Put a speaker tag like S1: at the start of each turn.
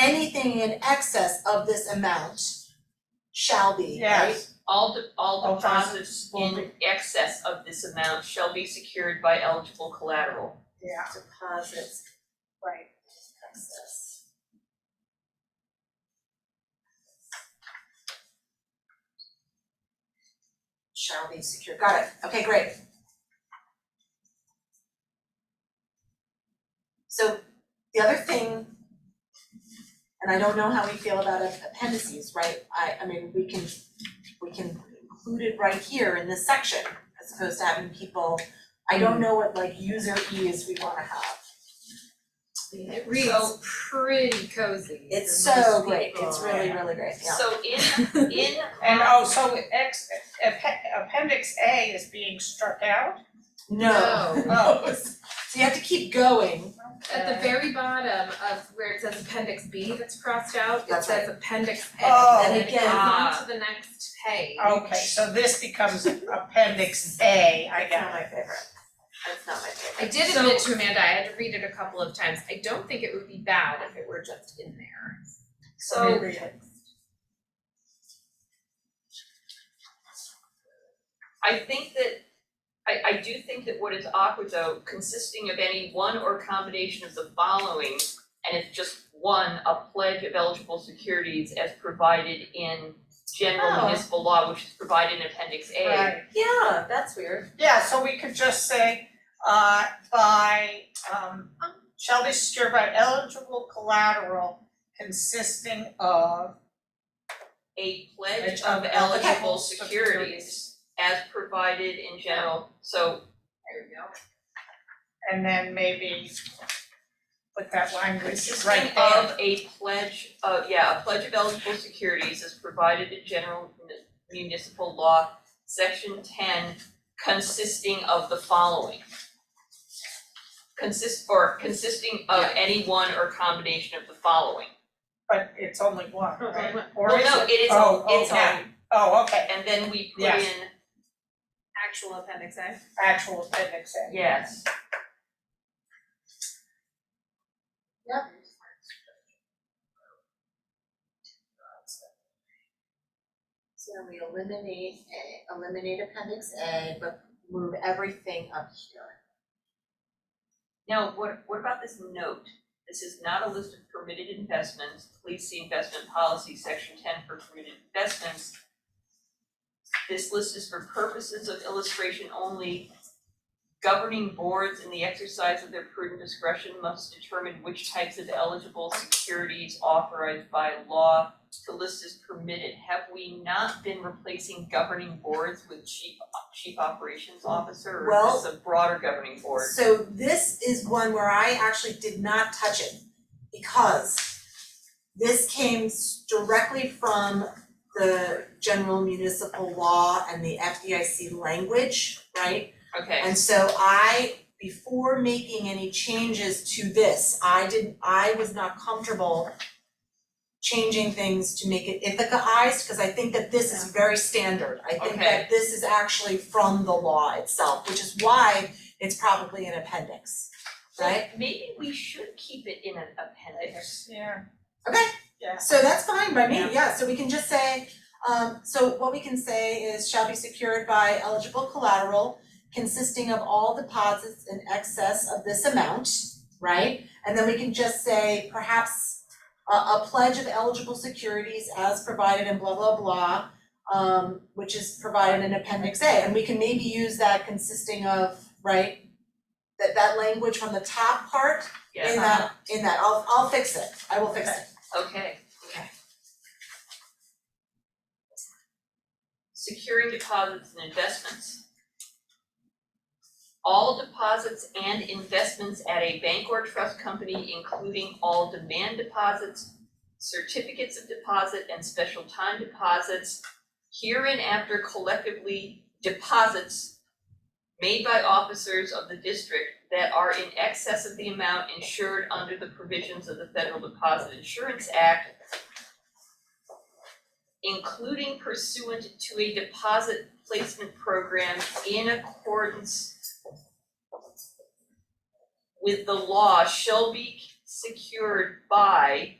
S1: anything in excess of this amount shall be, right?
S2: Yes,
S3: All de- all
S2: All kinds of
S3: deposits
S2: will
S3: in excess of this amount shall be secured by eligible collateral.
S2: yeah,
S1: Deposits
S2: right.
S1: excess. Shall be secure, got it, okay, great. So the other thing, and I don't know how we feel about appendices, right? I I mean, we can, we can include it right here in this section as opposed to having people, I don't know what like user ease we wanna have.
S4: It reads
S3: So-
S4: pretty cozy.
S1: It's
S4: for most
S1: so great,
S4: people.
S1: it's really, really great, yeah.
S3: So in in
S2: And oh, so ex, appe- appendix A is being struck out?
S1: No.
S2: Oh.
S1: So you have to keep going.
S4: At the very bottom of where it says appendix B that's crossed out, it
S1: That's
S4: says appendix A.
S2: Oh.
S4: And it goes
S3: Ah.
S4: on to the next page.
S1: Oh.
S2: Okay, so this becomes appendix A, I got it.
S1: favorite. That's not my favorite.
S4: I did admit to Amanda, I had to read it a couple of times. I don't think it would be bad if it were just in there.
S3: so I think that, I, I do think that what is awkward though, consisting of any one or combination of the following, and it's just one, a pledge of eligible securities as provided in
S1: Oh.
S3: general municipal law, which is provided in appendix A.
S2: Right,
S1: Yeah, that's weird.
S2: yeah, so we could just say, uh, by, um, shall be secured by eligible collateral consisting of.
S3: A pledge of eligible securities as provided in general, so
S4: There we go.
S2: And then maybe put that language
S3: Consisting
S2: right there.
S3: of a pledge of, yeah, a pledge of eligible securities is provided in general muni- municipal law, section ten, consisting of the following. Consist, or consisting of any one or combination of the following.
S2: But it's only one, right? Or
S3: Well,
S2: is
S3: no,
S2: it-
S3: it is,
S2: Oh,
S3: all- it's all,
S2: okay. Oh, okay,
S3: and then we put in,
S2: Yes.
S3: yes.
S4: Actual appendix A.
S2: actual appendix A.
S1: So we eliminate A, eliminate appendix A, but move everything up here.
S3: Now, what, what about this note? This is not a list of permitted investments, please see investment policy, section ten for permitted investments. This list is for purposes of illustration only. Governing boards in the exercise of their prudent discretion must determine which types of eligible securities authorized by law to list as permitted. Have we not been replacing governing boards with chief, chief operations officer, or is this a broader governing board?
S1: So this is one where I actually did not touch it because this came s- directly from the general municipal law and the FDIC language, right?
S3: Okay.
S1: And so I, before making any changes to this, I didn't, I was not comfortable changing things to make it Ithacaized, because I think that this is very standard. I think that this is actually from the law itself, which is why it's probably an appendix, right?
S3: Maybe we should keep it in an appendix.
S2: Yeah.
S1: So that's fine by me, yeah, so we can just say, um, so what we can say is shall be secured by eligible collateral consisting of all deposits in excess of this amount, right? And then we can just say perhaps a, a pledge of eligible securities as provided in blah, blah, blah, um, which is provided in appendix A, and we can maybe use that consisting of, right? That, that language from the top part in
S3: Yeah, uh-huh.
S1: that, in that, I'll, I'll fix it, I will fix it.
S3: okay. Securing deposits and investments. All deposits and investments at a bank or trust company, including all demand deposits, certificates of deposit and special time deposits, hereinafter collectively deposits made by officers of the district that are in excess of the amount insured under the provisions of the Federal Deposit Insurance Act, including pursuant to a deposit placement program in accordance with the law shall be secured by